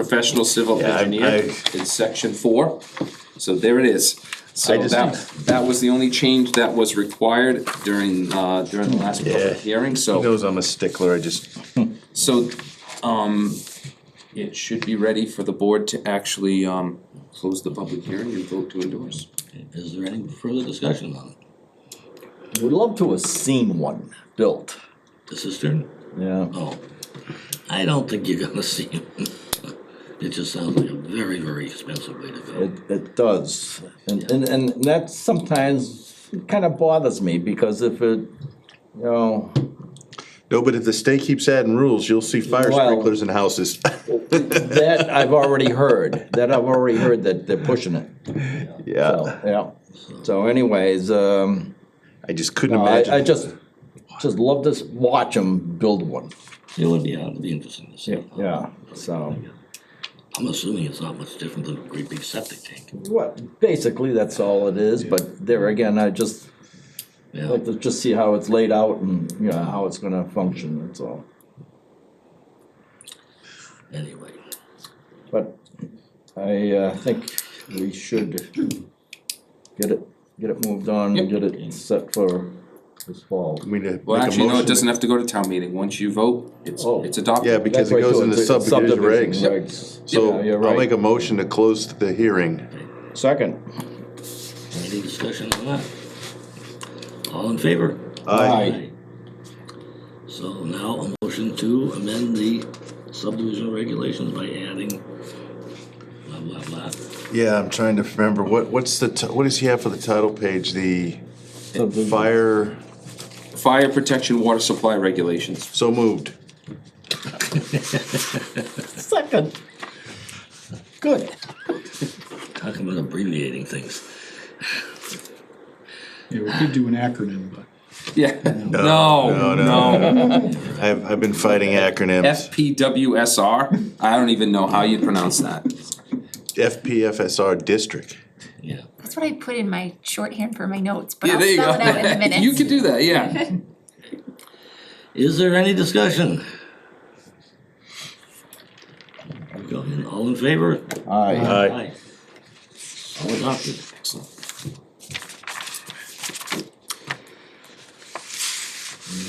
professional civil Yeah, I- engineer I- in section four. So there it is. So I just- that, that was the only change that was required during, uh, during the last Yeah. public hearing, He so, knows I'm a stickler, I just, so, um, it should be ready for the board to actually, um, close the public hearing and vote to endorse. Is there any further discussion on it? Would love to have seen one built. The cistern? Yeah. Oh, I don't think you're gonna see it. It just sounds like a very, very expensive way to go. It, it does. And, and, and that sometimes kind of bothers me because if it, you know, no, but if the state keeps adding rules, you'll see fire Well- sprinklers in houses. that I've already heard, that I've already heard that they're pushing it. Yeah, So, yeah. So anyways, um, I just couldn't I, imagine. I just, just love to s- watch them build one. It would be, it'd be interesting to see. Yeah, so, I'm assuming it's not much different than a great big septic tank. well, basically, that's all it is, but there again, I just Yeah, like to just see how it's laid out and, you know, how it's gonna function, that's all. anyway. But I uh, think we should get it, get it moved on, Yep. get it set for this fall. We need to Well, make a actually, no, it motion. doesn't have to go to town meeting. Once you vote, it's, Oh. it's Yeah, adopted. because That's right, it goes too, in the it's a subdivision regs. regs. So Yeah, you're I'll make right. a motion to close the hearing. Second. Any discussion on that? All in favor? Aye. So now a motion to amend the subdivision regulations by adding blah, blah, blah. Yeah, I'm trying to remember, what, what's the, ti- what does he have for the title page, the Subdivision. fire, Fire protection, water supply regulations. so moved. Second. Good. Talking about abbreviating things. Yeah, we could do an acronym, but Yeah, no, no. I've, I've been fighting acronyms, FPWSR, I don't even know how you pronounce that. FPFSR district. Yeah. That's what I put in my shorthand for my notes, but Yeah, I'll there you spell it out in a go. minute. You could do that, yeah. Is there any discussion? We go in, All in favor? Aye. Aye. All adopted.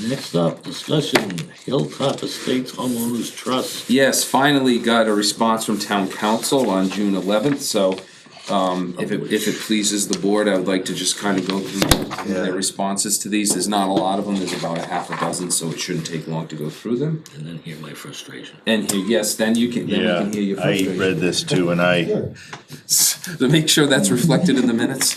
Next up, discussion Hilltop Estates Homeowners Trust. Yes, finally got a response from town council on June eleventh, so um, if it, if it pleases the board, I would like to just kind of go through their responses to these. There's not a lot of them, there's about a half a dozen, so it shouldn't take long to go through them. And then hear my frustration. And here, yes, then you can, then we Yeah, can hear your I frustration. read this too, and I, To make sure that's reflected in the minutes.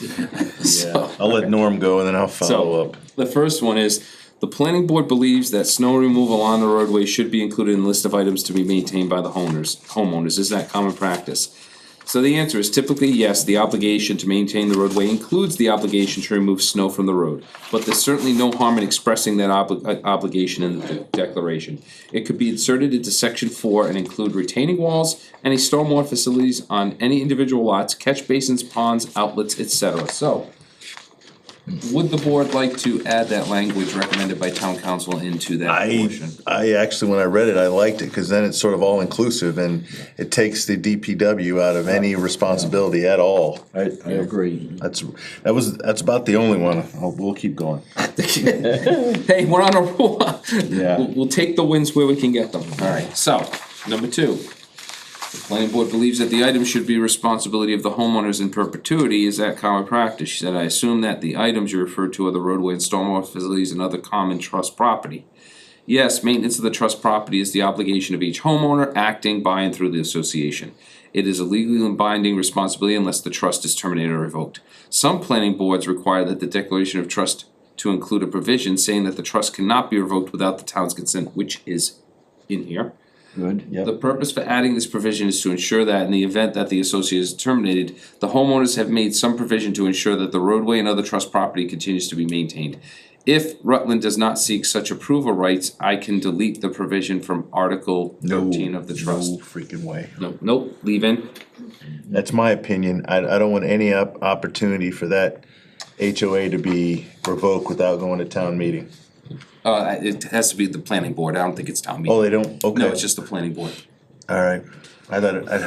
So- I'll let Norm go and then I'll follow So, up. the first one is, the planning board believes that snow removal on the roadway should be included in the list of items to be maintained by the homeowners, homeowners, is that common practice? So the answer is typically yes, the obligation to maintain the roadway includes the obligation to remove snow from the road. But there's certainly no harm in expressing that obli- uh, obligation in the de- declaration. It could be inserted into section four and include retaining walls, any stormwater facilities on any individual lots, catch basins, ponds, outlets, etc. So, would the board like to add that language recommended by town council into that I, portion? I actually, when I read it, I liked it, cause then it's sort of all inclusive and it takes the DPW out of any responsibility at all. I, I agree. That's, that was, that's about the only one, I'll- we'll keep going. Hey, we're on a roll. Yeah. We'll, we'll take the wins where we can get them. All right, so, number two. The planning board believes that the item should be responsibility of the homeowners in perpetuity. Is that common practice? She said, I assume that the items you referred to are the roadway and stormwater facilities and other common trust property. Yes, maintenance of the trust property is the obligation of each homeowner acting by and through the association. It is a legally binding responsibility unless the trust is terminated or revoked. Some planning boards require that the declaration of trust to include a provision saying that the trust cannot be revoked without the town's consent, which is in here. Good. The purpose for adding this provision is to ensure that in the event that the associate is terminated, the homeowners have made some provision to ensure that the roadway and other trust property continues to be maintained. If Rutland does not seek such approval rights, I can delete the provision from Article thirteen of the trust. No freaking way. No, nope, leave in. That's my opinion. I, I don't want any op- opportunity for that HOA to be revoked without going to town meeting. Uh, it has to be the planning board, I don't think it's town Oh, meeting. they don't? Okay. No, it's just the planning board. All right. I thought, it- I'd